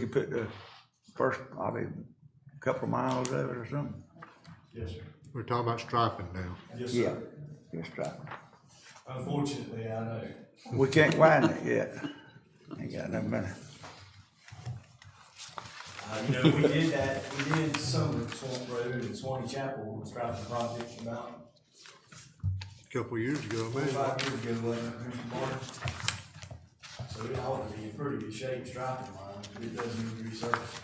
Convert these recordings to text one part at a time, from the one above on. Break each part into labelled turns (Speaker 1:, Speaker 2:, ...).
Speaker 1: You put the first, I mean, couple of miles of it or something?
Speaker 2: Yes, sir.
Speaker 3: We're talking about striping now.
Speaker 2: Yes,
Speaker 1: Yeah,
Speaker 2: sir.
Speaker 1: just driving.
Speaker 2: Unfortunately, I know.
Speaker 1: We can't widen it yet. Ain't got no money.
Speaker 2: Uh, you know, we did that, we did some of Swamp Road and Swanee Chapel, was driving projects about
Speaker 3: A Couple of years ago, man.
Speaker 2: five years ago, wasn't it, Mr. Martin? So it ought to be in pretty good shape, striping line, if it doesn't need resurfacing.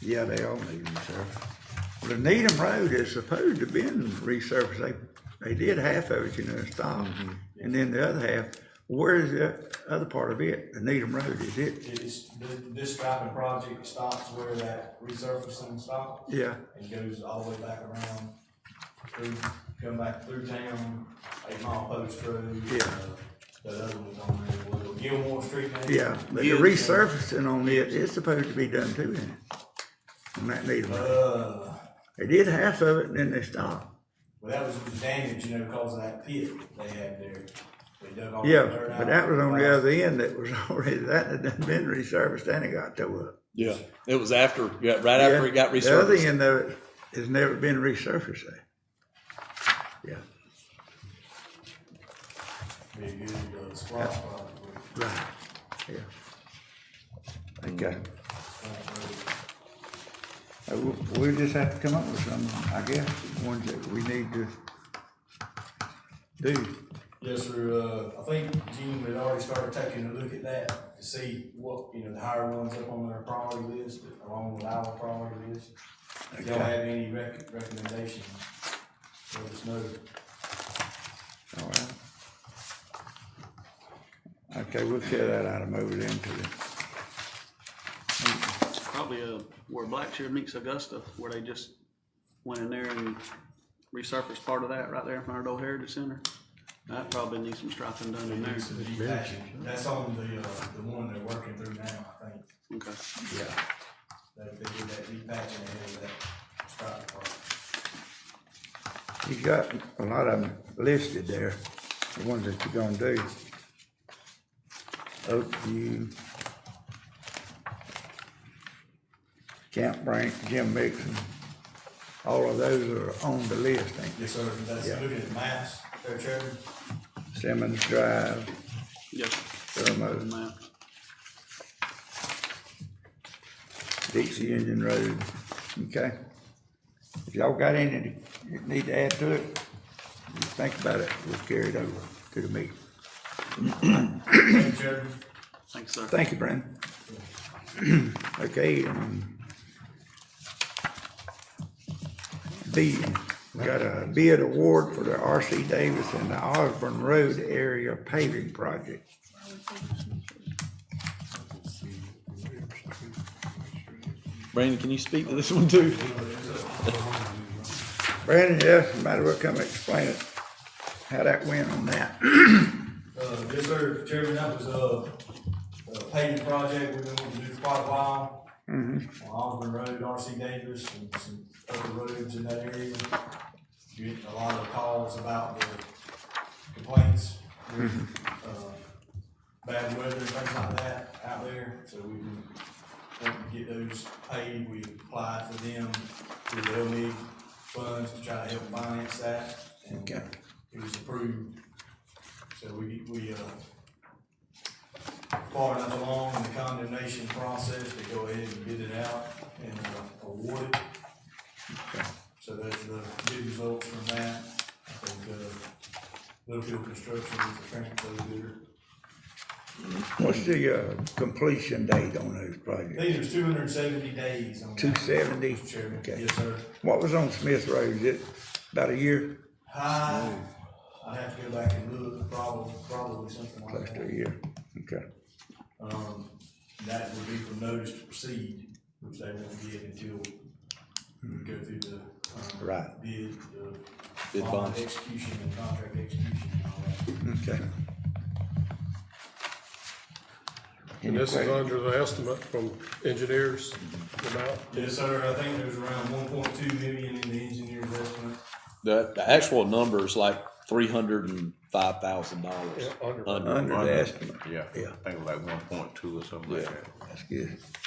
Speaker 1: Yeah, they all need resurfacing. Well, the Needham Road is supposed to been resurfaced. They, they did half of it, you know, stop. And then the other half, where is the other part of it? The Needham Road, is it?
Speaker 2: It is, this, this striping project stops where that resurfacing stops.
Speaker 1: Yeah,
Speaker 2: and goes all the way back around through, come back through town, eight mile post road.
Speaker 1: Yeah.
Speaker 2: uh, That other one's on there, well, Gilmore Street. maybe?
Speaker 1: yeah. But the resurfacing on it is supposed to be done too, isn't it? On that Needham Road.
Speaker 2: Uh,
Speaker 1: They did half of it and then they stopped.
Speaker 2: well, that was the damage, you know, because of that pit they had there. They dug all the
Speaker 1: Yeah,
Speaker 2: dirt out.
Speaker 1: but that was on the other end that was already, that had done been resurfaced and it got tore up.
Speaker 4: Yeah, it was after, yeah, right after it got
Speaker 1: The other
Speaker 4: resurfaced.
Speaker 1: end of it has never been resurfaced there. Yeah,
Speaker 2: Be a good, uh, splash probably.
Speaker 1: right, yeah. Okay, Uh, we- we'll just have to come up with some, I guess, ones that we need to do.
Speaker 2: Yes, sir, uh, I think Gene had already started taking a look at that to see what, you know, the higher ones up on their priority list, along with our priority list. If y'all
Speaker 1: Okay.
Speaker 2: have any rec- recommendations, let us know.
Speaker 1: All right. Okay, we'll tear that item over then to the,
Speaker 5: Probably uh, where Blackshear meets Augusta, where they just went in there and resurfaced part of that right there in front of the Old Heritage Center. That probably needs some striping done in there.
Speaker 2: That's on the, uh, the one they're working through now, I think,
Speaker 5: Okay.
Speaker 1: yeah.
Speaker 2: that they did that repatching ahead of that strike part.
Speaker 1: You got a lot of them listed there, the ones that you're gonna do. Oakview. Camp Brank, Jim Mixon, all of those are on the list, ain't
Speaker 2: Yes, sir, that's
Speaker 1: Yeah.
Speaker 2: looking at maps, there, Chairman.
Speaker 1: they? Simmons Drive,
Speaker 5: Yes.
Speaker 1: Thermo,
Speaker 5: ma'am.
Speaker 1: Dixie Union Road, okay? If y'all got any that need to add to it, just think about it, we'll carry it over to the meeting.
Speaker 2: Thank you, Chairman.
Speaker 5: Thanks, sir.
Speaker 1: Thank you, Brandon. Okay, um. B, we got a bid award for the RC Davis and the Osborne Road area paving project.
Speaker 4: Brandon, can you speak to this one too?
Speaker 1: Brandon, yes, you might as well come explain it, how that went on that.
Speaker 2: Uh, yes, sir, Chairman, that was uh, a, a paving project we've been wanting to do for quite a while. On Auburn Road, RC Davis, and some other roads in that area. Getting a lot of calls about the complaints, with, uh, bad weather, and things like that out there, so we've been wanting to get those paid, we applied for them through the LMIG funds to try to help finance that. and
Speaker 1: Okay.
Speaker 2: It was approved so we, we, uh, far enough along in the condemnation process to go ahead and bid it out and uh, award it. So that's the bid results from that. I think, uh, Littlefield Construction is the principal bidder.
Speaker 1: What's the, uh, completion date on those
Speaker 2: I
Speaker 1: projects?
Speaker 2: think there's two hundred and seventy days on that.
Speaker 1: Two seventy?
Speaker 2: Mr. Chairman,
Speaker 1: Okay.
Speaker 2: yes, sir.
Speaker 1: What was on Smith Road, is it about a year,
Speaker 2: I, I'd have to go back and look, probably, probably something like
Speaker 1: close
Speaker 2: that.
Speaker 1: to a year? Okay.
Speaker 2: Um, that would be for notice to proceed, which they won't get until we go through the, um.
Speaker 1: Right.
Speaker 2: Bid, the.
Speaker 4: Bid
Speaker 2: bond
Speaker 4: bonds.
Speaker 2: Execution and contract execution and all that.
Speaker 1: Okay. Any
Speaker 6: And this is
Speaker 1: questions?
Speaker 6: under the estimate from engineers about,
Speaker 2: Yes, sir, I think there's around one point two million in the engineer's estimate.
Speaker 4: The, the actual number is like three hundred and five thousand dollars.
Speaker 6: Yeah, under.
Speaker 1: Under the estimate,
Speaker 7: Yeah,
Speaker 1: Yeah.
Speaker 7: I think it was like one point two or something like
Speaker 4: Yeah.
Speaker 7: that.
Speaker 1: that's good.